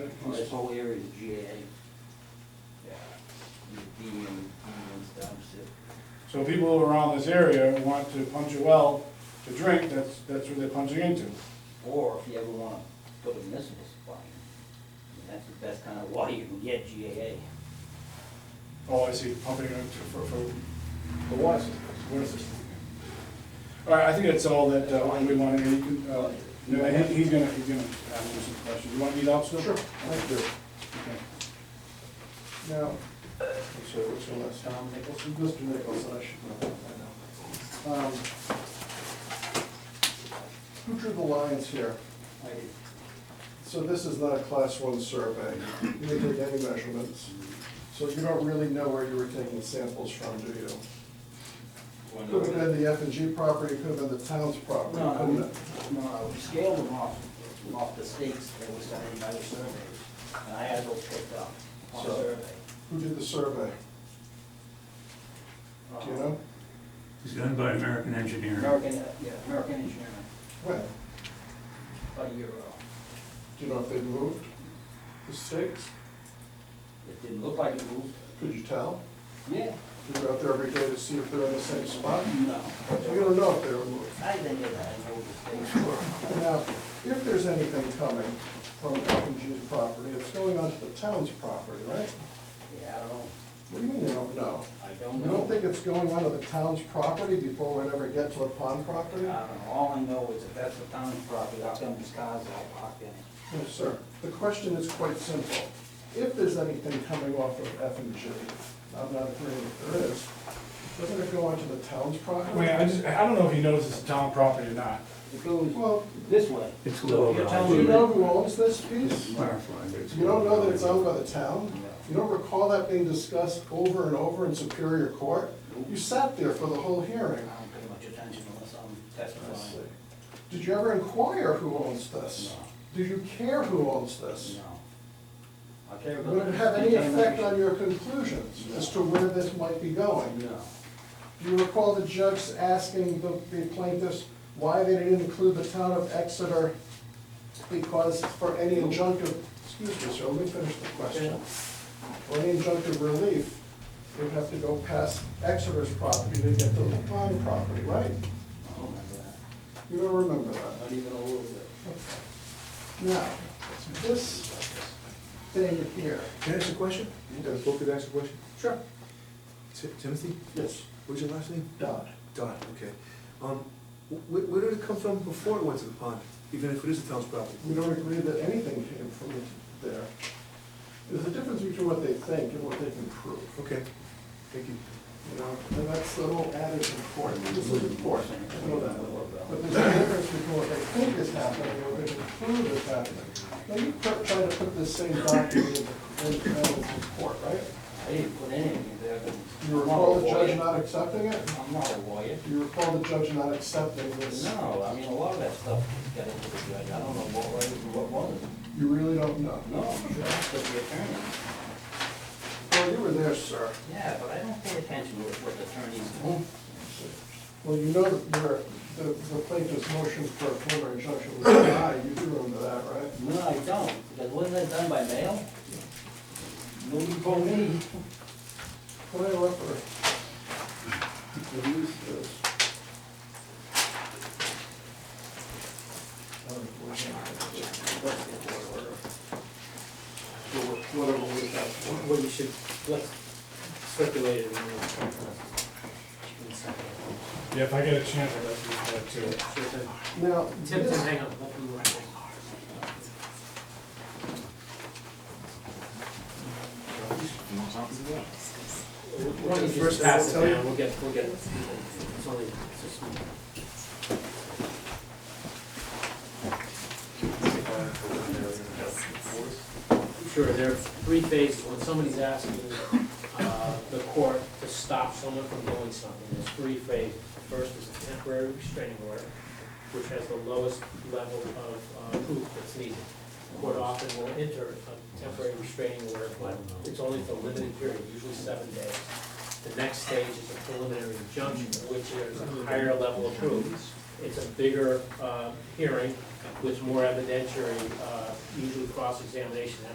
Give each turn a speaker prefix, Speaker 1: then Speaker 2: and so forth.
Speaker 1: Oh, whole area is GA.
Speaker 2: Yeah.
Speaker 1: Your DM, DM dumps it.
Speaker 2: So people who are around this area who want to punch a well to drink, that's, that's where they're punching into.
Speaker 1: Or if you ever wanna put a municipal supply in, I mean, that's the best kind of water you can get, GAA.
Speaker 2: Oh, I see, pumping it into, for, for the water system, water system. All right, I think that's all that, uh, we want to, you can, uh, no, he- he's gonna, he's gonna ask you some questions. You want to eat out still?
Speaker 3: Sure,
Speaker 2: Okay.
Speaker 3: thank you.
Speaker 2: Okay.
Speaker 3: Now, what's your, what's your last, Tom Nicholson, Mr. Nicholson, I should know that by now. Um, Who drew the lines here? So this is not a class one survey, you didn't take any measurements, so you don't really know where you were taking samples from, do you? Could have been the F and G property, could have been the town's property.
Speaker 1: No,
Speaker 3: couldn't
Speaker 1: no,
Speaker 3: it?
Speaker 1: no, we scaled them off, off the stakes that were signed by the surveyors, and I had those picked up on
Speaker 3: So-
Speaker 1: survey.
Speaker 3: Who did the survey, do you know?
Speaker 4: It's done by American engineering.
Speaker 1: Uh, American, uh, yeah, American engineering,
Speaker 3: When?
Speaker 1: about a year ago.
Speaker 3: Do you know if they moved the stakes?
Speaker 1: It didn't look like it moved.
Speaker 3: Could you tell?
Speaker 1: Yeah.
Speaker 3: You go out there every day to see if they're in the same spot?
Speaker 1: No.
Speaker 3: So you don't know if they were moved.
Speaker 1: I didn't get that, I know the stakes were.
Speaker 3: Now, if there's anything coming from F&G's property, it's going onto the town's property, right?
Speaker 1: Yeah, I don't know.
Speaker 3: What do you mean you don't know?
Speaker 1: I don't
Speaker 3: You
Speaker 1: know.
Speaker 3: don't think it's going onto the town's property before we ever get to the pond
Speaker 1: I
Speaker 3: property?
Speaker 1: don't know, all I know is if that's the town's property, how come these cars all parked in it?
Speaker 3: No, sir. The question is quite simple. If there's anything coming off of F&G, I'm not agreeing if there is, doesn't it go onto the town's property?
Speaker 2: Wait, I just, I don't know if he knows it's town property or not.
Speaker 1: It goes
Speaker 3: Well,
Speaker 1: this way.
Speaker 4: It's
Speaker 1: So if
Speaker 4: low.
Speaker 1: you're
Speaker 3: do you
Speaker 1: telling me
Speaker 3: know who owns this
Speaker 4: It's
Speaker 3: piece?
Speaker 4: clarified, it's
Speaker 3: You don't know that it's owned
Speaker 4: low.
Speaker 3: by the town? You don't recall that being discussed over and over in Superior Court? You sat there for the whole
Speaker 1: I
Speaker 3: hearing.
Speaker 1: don't pay much attention unless I'm
Speaker 3: I see.
Speaker 1: testifying.
Speaker 3: Did you ever inquire who owns this? Do you care who owns this?
Speaker 1: No. I care about.
Speaker 3: Would it have any effect on
Speaker 1: contamination.
Speaker 3: your conclusions as to where this might be going?
Speaker 1: No.
Speaker 3: Do you recall the judge asking the the plaintiffs why they didn't include the town of Exeter? Because for any injunctive, excuse me, sir, let me finish the question. For any injunctive relief, you'd have to go past Exeter's property to get to the pond property, right?
Speaker 1: I don't remember that.
Speaker 3: You don't remember that.
Speaker 1: Oh, Not even a little bit.
Speaker 3: Now, this thing here.
Speaker 5: Can I ask a question? I was supposed to ask a question.
Speaker 3: Sure.
Speaker 5: Ti- Timothy,
Speaker 3: Yes,
Speaker 5: what's your last name?
Speaker 3: Dodd.
Speaker 5: Don, okay. Um, where, where did it come from before it went to the pond, even if it is the town's property?
Speaker 3: We don't agree that anything came from there. There's a difference between what they think and what they can prove.
Speaker 5: Okay, thank you.
Speaker 3: You know, and that's the whole adage of court, this is important, I know that. But there's a difference between what they think is happening and what they can prove is happening. Now, you put- try to put this same document in, in evidence in court, right?
Speaker 1: I didn't put any of that.
Speaker 3: Do you recall the judge not accepting it?
Speaker 1: I'm not a lawyer.
Speaker 3: Do you recall the judge not accepting this?
Speaker 1: No, I mean, a lot of that stuff got into the judge. I don't know what was and what wasn't.
Speaker 3: You really don't know?
Speaker 1: No, I'm sure that's what the attorney.
Speaker 3: Well, you were there, sir.
Speaker 1: Yeah, but I don't pay attention to what the attorneys do.
Speaker 3: Well, you know that your, the the plaintiff's motion for a preliminary injunction was denied, you do remember that, right?
Speaker 1: No, I don't, because wasn't that done by mail? Nobody told me.
Speaker 3: What do I look for? The use is. Whatever we have.
Speaker 6: What you should, let's speculate it in the.
Speaker 2: Yeah, if I get a chance, I'd like to do that too.
Speaker 3: Now,
Speaker 6: Tim, Tim,
Speaker 3: this-
Speaker 6: hang on, let me run it. Why don't you just pass it down, we'll get, we'll get, it. it's only, it's just. Sure, there are three phases, when somebody's asking, uh, the court to stop someone from doing something, there's three phases. First is a temporary restraining order, which has the lowest level of uh, proof that's needed. Court often will enter a temporary restraining order, but it's only for a limited period, usually seven days. The next stage is a preliminary injunction, which is a higher level of proof. It's a bigger uh, hearing with more evidentiary, uh, usually cross-examination,